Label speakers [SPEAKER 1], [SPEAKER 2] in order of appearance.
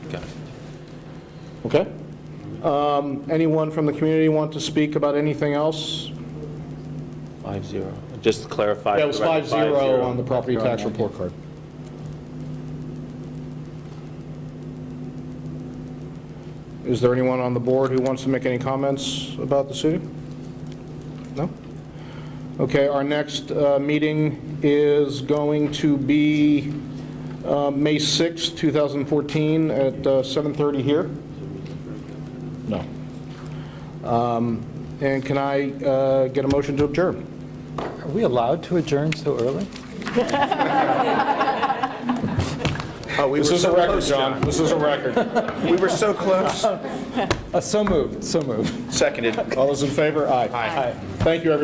[SPEAKER 1] Got it.
[SPEAKER 2] Okay? Um, Anyone from the community want to speak about anything else?
[SPEAKER 1] Five zero. Just to clarify.
[SPEAKER 2] That was
[SPEAKER 1] right,
[SPEAKER 2] five zero on the property tax report card. Is there anyone on the board who wants to make any comments about the suiting? No? Okay, our next uh, meeting is going to be uh, May sixth, two 2014, at uh, 7:30 here? No. Um, And can I uh, get a motion to adjourn?
[SPEAKER 3] Are we allowed to adjourn so early?
[SPEAKER 2] This is a record, John. This is a record.
[SPEAKER 4] We were so close.
[SPEAKER 3] Uh, So moved, so moved.
[SPEAKER 4] Seconded.
[SPEAKER 2] All those in favor? Aye. Aye. Thank you, everyone.